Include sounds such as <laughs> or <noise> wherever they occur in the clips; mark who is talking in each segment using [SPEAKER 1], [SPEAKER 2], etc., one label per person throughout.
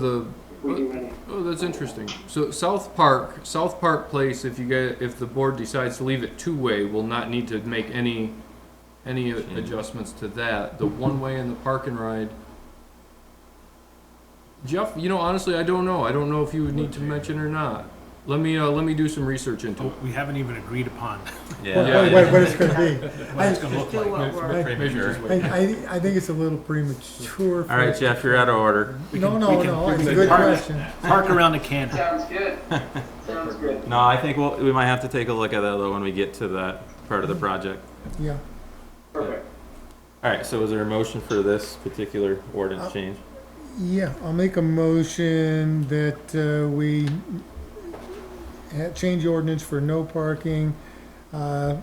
[SPEAKER 1] The
[SPEAKER 2] we do any.
[SPEAKER 1] oh, that's interesting. So South Park, South Park Place. If you get, if the board decides to leave it two way, will not need to make any, any a- adjustments to that. The one way and the park and ride. Jeff, you know, honestly, I don't know. I don't know if you would need to mention or not. Let me uh, let me do some research into
[SPEAKER 3] Oh,
[SPEAKER 1] it.
[SPEAKER 3] we haven't even agreed upon
[SPEAKER 4] Yeah.
[SPEAKER 5] What,
[SPEAKER 1] Yeah.
[SPEAKER 5] what- what it's gonna be.
[SPEAKER 3] <laughs> what it's gonna look
[SPEAKER 6] Still
[SPEAKER 3] like.
[SPEAKER 6] what we're-
[SPEAKER 5] I,
[SPEAKER 4] Premature.
[SPEAKER 1] Measures.
[SPEAKER 5] I, I- I think it's a little premature. for-
[SPEAKER 4] All right, Jeff, you're out of order.
[SPEAKER 3] We
[SPEAKER 5] No,
[SPEAKER 3] can-
[SPEAKER 5] no,
[SPEAKER 3] we can-
[SPEAKER 5] no,
[SPEAKER 3] we
[SPEAKER 5] it's a
[SPEAKER 3] can
[SPEAKER 5] good
[SPEAKER 3] park-
[SPEAKER 5] question.
[SPEAKER 3] Park around the can.
[SPEAKER 2] Sounds good.
[SPEAKER 3] <laughs>
[SPEAKER 2] Sounds good.
[SPEAKER 4] No, I think we'll, we might have to take a look at that though when we get to that part of the project.
[SPEAKER 5] Yeah,
[SPEAKER 2] Perfect.
[SPEAKER 4] All right, so is there a motion for this particular ordinance
[SPEAKER 5] Uh,
[SPEAKER 4] change?
[SPEAKER 5] yeah, I'll make a motion that, uh, we ha- change the ordinance for no parking, uh,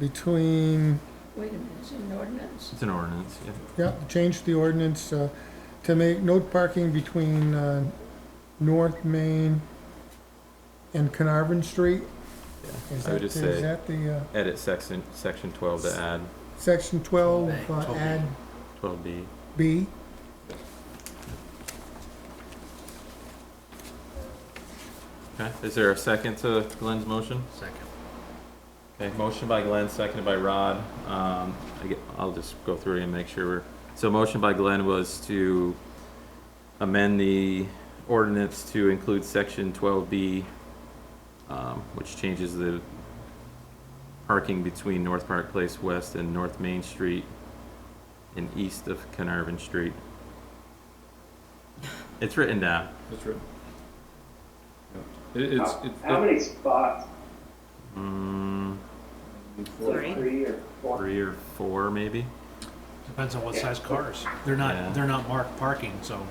[SPEAKER 5] between,
[SPEAKER 6] Wait a minute, it's an ordinance.
[SPEAKER 4] It's an ordinance, yeah.
[SPEAKER 5] yeah, change the ordinance, uh, to make no parking between, uh, North Main and Carnarvon Street.
[SPEAKER 4] Yeah,
[SPEAKER 5] Is
[SPEAKER 4] I would
[SPEAKER 5] that,
[SPEAKER 4] just
[SPEAKER 5] is
[SPEAKER 4] say-
[SPEAKER 5] that the, uh,
[SPEAKER 4] Edit section, section twelve to add
[SPEAKER 5] section twelve, uh,
[SPEAKER 3] Twelve B.
[SPEAKER 5] add
[SPEAKER 4] twelve B.
[SPEAKER 5] B?
[SPEAKER 4] Okay, is there a second to Glenn's motion?
[SPEAKER 3] Second.
[SPEAKER 4] Okay, motion by Glenn, seconded by Rod. Um, I get, I'll just go through and make sure we're, so motion by Glenn was to amend the ordinance to include section twelve B, um, which changes the parking between North Park Place West and North Main Street and east of Carnarvon Street. It's written down.
[SPEAKER 1] That's right. It, it's
[SPEAKER 2] How-
[SPEAKER 1] it's
[SPEAKER 2] How many spots?
[SPEAKER 4] Mm,
[SPEAKER 6] Three.
[SPEAKER 2] Three or four?
[SPEAKER 4] three or four, maybe?
[SPEAKER 3] Depends on what size cars. They're
[SPEAKER 4] Yeah.
[SPEAKER 3] not, they're not marked parking, so.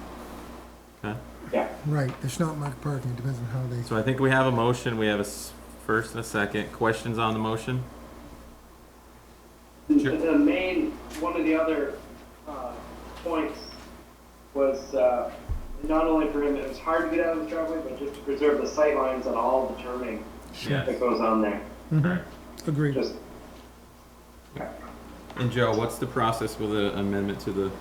[SPEAKER 4] Okay.
[SPEAKER 2] Yeah.
[SPEAKER 5] Right, there's not marked parking, it depends on how they,
[SPEAKER 4] So I think we have a motion, we have a s- first and a second. Questions on the motion? Sure.
[SPEAKER 2] The main, one of the other uh, points was uh, not only for him, it was hard to get out of the driveway, but just to preserve the sight lines on all the turning that goes on there.
[SPEAKER 4] Correct.
[SPEAKER 5] agreed.
[SPEAKER 2] Just,
[SPEAKER 4] And Joe, what's the process with the amendment to the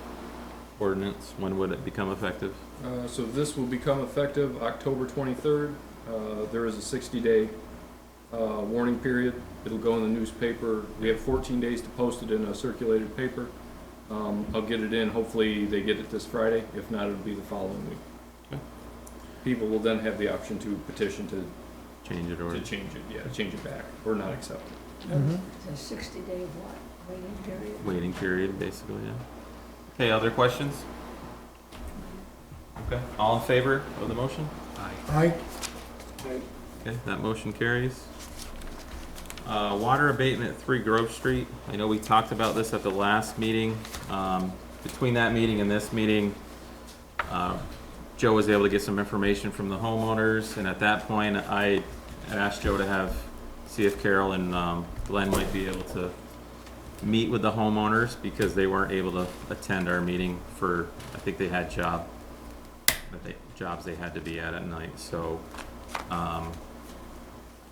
[SPEAKER 4] ordinance? When would it become effective?
[SPEAKER 1] Uh, so this will become effective October twenty-third. Uh, there is a sixty-day, uh, warning period. It'll go in the newspaper. We have fourteen days to post it in a circulated paper. Um, I'll get it in. Hopefully they get it this Friday. If not, it'll be the following week.
[SPEAKER 4] Okay.
[SPEAKER 1] People will then have the option to petition to,
[SPEAKER 4] Change it
[SPEAKER 1] to
[SPEAKER 4] or?
[SPEAKER 1] change it, yeah, change it back or not accept it.
[SPEAKER 5] Mhm.
[SPEAKER 6] It's a sixty day what, waiting period?
[SPEAKER 4] Waiting period, basically, yeah. Okay, other questions? Okay, all in favor of the motion?
[SPEAKER 3] I-
[SPEAKER 5] I,
[SPEAKER 2] I-
[SPEAKER 4] Okay, that motion carries. Uh, water abatement, three Grove Street. I know we talked about this at the last meeting. Um, between that meeting and this meeting, uh, Joe was able to get some information from the homeowners, and at that point, I had asked Joe to have, see if Carol and, um, Glenn might be able to meet with the homeowners, because they weren't able to attend our meeting for, I think they had job, that they, jobs they had to be at at night, so, um,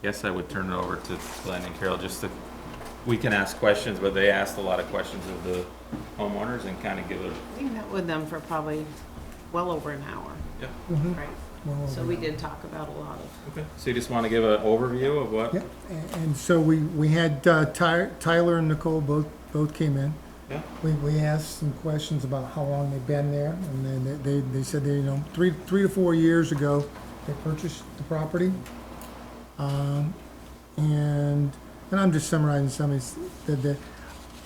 [SPEAKER 4] guess I would turn it over to Glenn and Carol just to, we can ask questions, but they asked a lot of questions of the homeowners and kind of give it,
[SPEAKER 7] We met with them for probably well over an hour,
[SPEAKER 4] yeah.
[SPEAKER 5] mhm,
[SPEAKER 7] right?
[SPEAKER 5] well,
[SPEAKER 7] So we did talk about a lot of,
[SPEAKER 4] Okay. So you just want to give an overview of what?
[SPEAKER 5] yeah, a- and so we, we had uh, Ty- Tyler and Nicole both, both came in.
[SPEAKER 4] Yeah.
[SPEAKER 5] We, we asked some questions about how long they've been there, and then they- they, they said they, you know, three, three to four years ago, they purchased the property. Um, and, and I'm just summarizing some of these, that, that,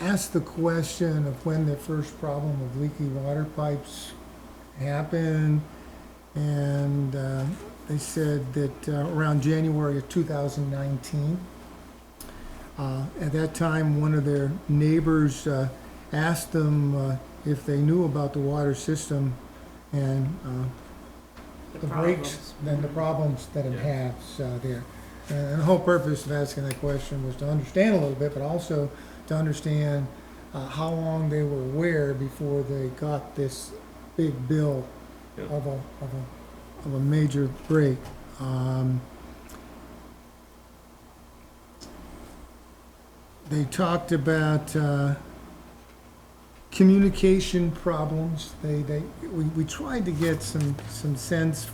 [SPEAKER 5] asked the question of when the first problem of leaky water pipes happened, and, uh, they said that uh, around January of 2019. Uh, At that time, one of their neighbors uh, asked them uh, if they knew about the water system and uh, the
[SPEAKER 7] the
[SPEAKER 5] breaks,
[SPEAKER 7] problems.
[SPEAKER 5] and the problems that it has uh, there. And the whole purpose of asking that question was to understand a little bit, but also to understand uh, how long they were aware before they got this big bill
[SPEAKER 4] Yeah.
[SPEAKER 5] of a, of a, of a major break. Um, They talked about, uh, communication problems. They, they, we, we tried to get some, some sense